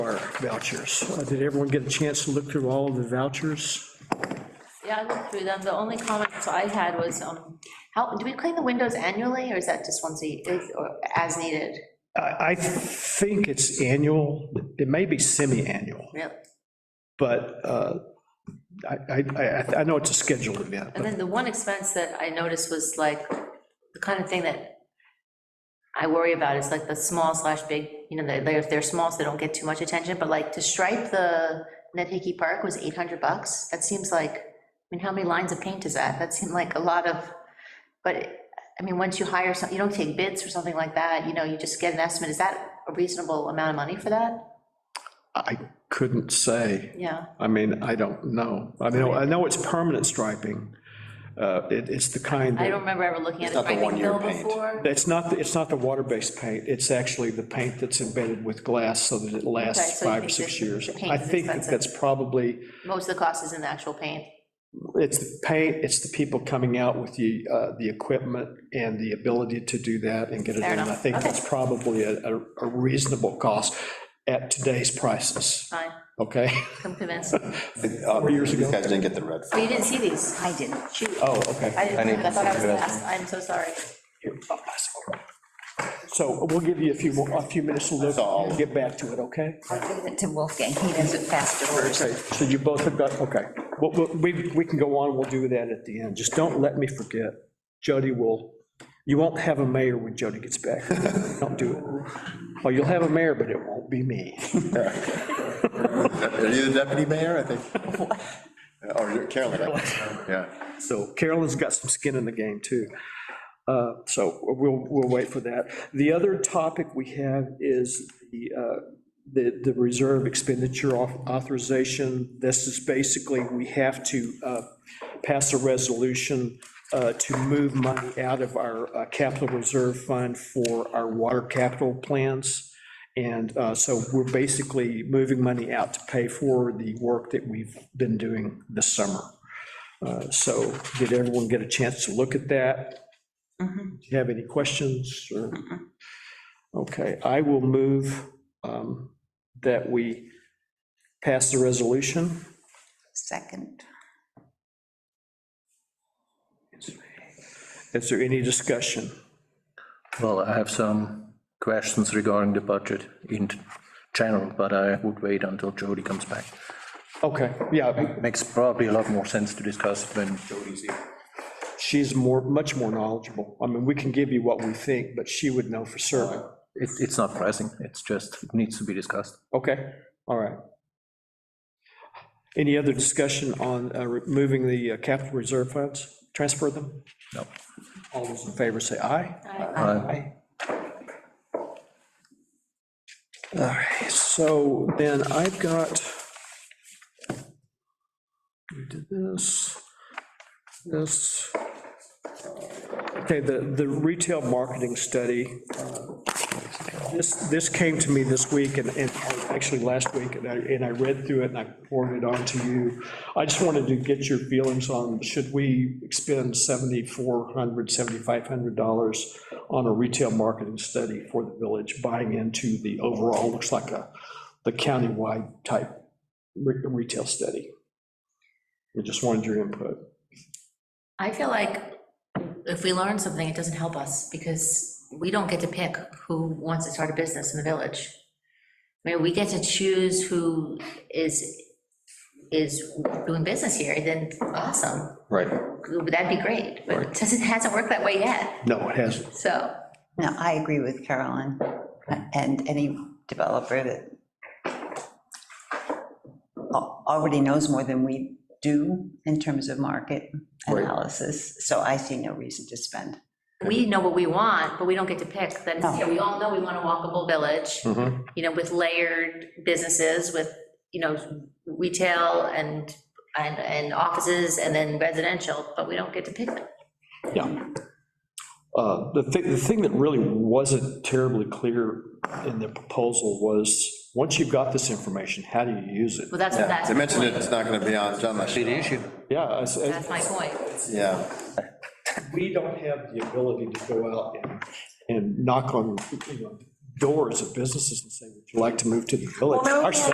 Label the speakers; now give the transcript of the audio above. Speaker 1: vouchers. Uh, Did everyone get a chance to look through all of the vouchers?
Speaker 2: Yeah, I looked through them. The only comments I had was, um, how, do we clean the windows annually, or is that just once a, is- or as needed?
Speaker 1: I, I think it's annual, it may be semi-annual,
Speaker 2: Really?
Speaker 1: but uh, I, I, I- I know it's a scheduled event,
Speaker 2: And
Speaker 1: but
Speaker 2: then the one expense that I noticed was like, the kind of thing that I worry about is like the small slash big, you know, they're, if they're small, so they don't get too much attention, but like to stripe the Hickey Park was eight hundred bucks. That seems like, I mean, how many lines of paint is that? That seemed like a lot of, but, I mean, once you hire some, you don't take bids or something like that, you know, you just get an estimate. Is that a reasonable amount of money for that?
Speaker 1: I couldn't say.
Speaker 2: Yeah,
Speaker 1: I mean, I don't know. I mean, I know it's permanent striping. Uh, It, it's the kind
Speaker 2: I don't
Speaker 1: that,
Speaker 2: remember ever looking at a
Speaker 3: not the
Speaker 2: striping
Speaker 3: one-year
Speaker 2: bill
Speaker 3: paint.
Speaker 2: before.
Speaker 1: it's not, it's not the water-based paint. It's actually the paint that's embedded with glass so that it
Speaker 2: Okay,
Speaker 1: lasts
Speaker 2: so you
Speaker 1: five or
Speaker 2: think
Speaker 1: six
Speaker 2: the-
Speaker 1: years.
Speaker 2: the paint
Speaker 1: I
Speaker 2: is
Speaker 1: think that
Speaker 2: expensive.
Speaker 1: that's probably,
Speaker 2: Most of the cost is in the actual paint.
Speaker 1: it's the paint, it's the people coming out with the, uh, the equipment and the ability to do that and get it
Speaker 2: Fair
Speaker 1: done. I
Speaker 2: enough.
Speaker 1: think
Speaker 2: Okay.
Speaker 1: that's probably a, a- a reasonable cost at today's prices,
Speaker 2: Fine,
Speaker 1: okay?
Speaker 2: I'm convinced.
Speaker 3: Four
Speaker 1: years ago.
Speaker 3: Uh, These guys didn't get the red.
Speaker 2: Oh, you didn't see these?
Speaker 4: I didn't.
Speaker 2: Shoot,
Speaker 1: Oh, okay.
Speaker 2: I didn't,
Speaker 3: didn't
Speaker 2: I thought I was
Speaker 3: see that.
Speaker 2: last, I'm so sorry.
Speaker 1: So we'll give you a few, more- a few minutes to look,
Speaker 3: That's all.
Speaker 1: and get back to it, okay?
Speaker 4: I'll give it to Wolfgang. He does it faster first.
Speaker 1: Okay, so you both have got, okay. Well, well, We, we can go on, we'll do that at the end. Just don't let me forget. Jody will, you won't have a mayor when Jody gets back. Don't do it. Well, you'll have a mayor, but it won't be me.
Speaker 3: Are you the deputy mayor, I think? Or you're Carolyn, I think. yeah.
Speaker 1: So Carolyn's got some skin in the game, too. Uh, So we'll, we'll wait for that. The other topic we have is the, uh, the, the reserve expenditure au- authorization. This is basically, we have to uh, pass a resolution uh, to move money out of our uh, capital reserve fund for our water capital plans. And uh, so we're basically moving money out to pay for the work that we've been doing this summer. Uh, So did everyone get a chance to look at that? Do you have any questions or? Okay, I will move um, that we pass the resolution.
Speaker 4: Second.
Speaker 1: Is there any discussion?
Speaker 5: Well, I have some questions regarding the budget in general, but I would wait until Jody comes back.
Speaker 1: Okay, yeah,
Speaker 5: Makes probably a lot more sense to discuss it when Jody's here.
Speaker 1: she's more, much more knowledgeable. I mean, we can give you what we think, but she would know for certain.
Speaker 5: It's, it's not pressing, it's just, it needs to be discussed.
Speaker 1: Okay, all right. Any other discussion on uh, removing the uh, capital reserve funds, transfer them?
Speaker 5: No.
Speaker 1: All those in favor say aye.
Speaker 2: I-
Speaker 5: Uh,
Speaker 1: Aye. All right, so then I've got, we did this, this. Okay, the, the retail marketing study, uh, this, this came to me this week and, and actually last week, and I, and I read through it and I forwarded it on to you. I just wanted to get your feelings on, should we expend $7,400, $7,500 on a retail marketing study for the village, buying into the overall, looks like a, the countywide type re- retail study. We just wanted your input.
Speaker 2: I feel like if we learn something, it doesn't help us, because we don't get to pick who wants to start a business in the village. I mean, we get to choose who is, is doing business here, then awesome,
Speaker 3: Right.
Speaker 2: that'd be great, but it doesn't, hasn't worked that way yet,
Speaker 1: No, it hasn't.
Speaker 2: so.
Speaker 4: No, I agree with Carolyn and any developer that al- already knows more than we do in terms of market
Speaker 3: Right.
Speaker 4: analysis. So I see no reason to spend.
Speaker 2: we know what we want, but we don't get to pick, then,
Speaker 4: No.
Speaker 2: yeah, we all know we want a walkable village,
Speaker 3: Mm-hmm.
Speaker 1: Mhm.
Speaker 2: you know, with layered businesses, with, you know, retail and, and, and offices, and then residential, but we don't get to pick them.
Speaker 1: Yeah. Uh, The thing, the thing that really wasn't terribly clear in the proposal was, once you've got this information, how do you use it?
Speaker 2: Well, that's, that's
Speaker 3: They
Speaker 2: my
Speaker 3: mentioned it,
Speaker 2: point,
Speaker 3: it's not gonna be on John Lashon.
Speaker 1: Yeah, I s-
Speaker 2: that's my point.
Speaker 3: Yeah,
Speaker 1: we don't have the ability to go out and, and knock on, you know, doors of businesses and say, would you like to move to the village?
Speaker 2: Well, no,
Speaker 1: Our
Speaker 2: yeah.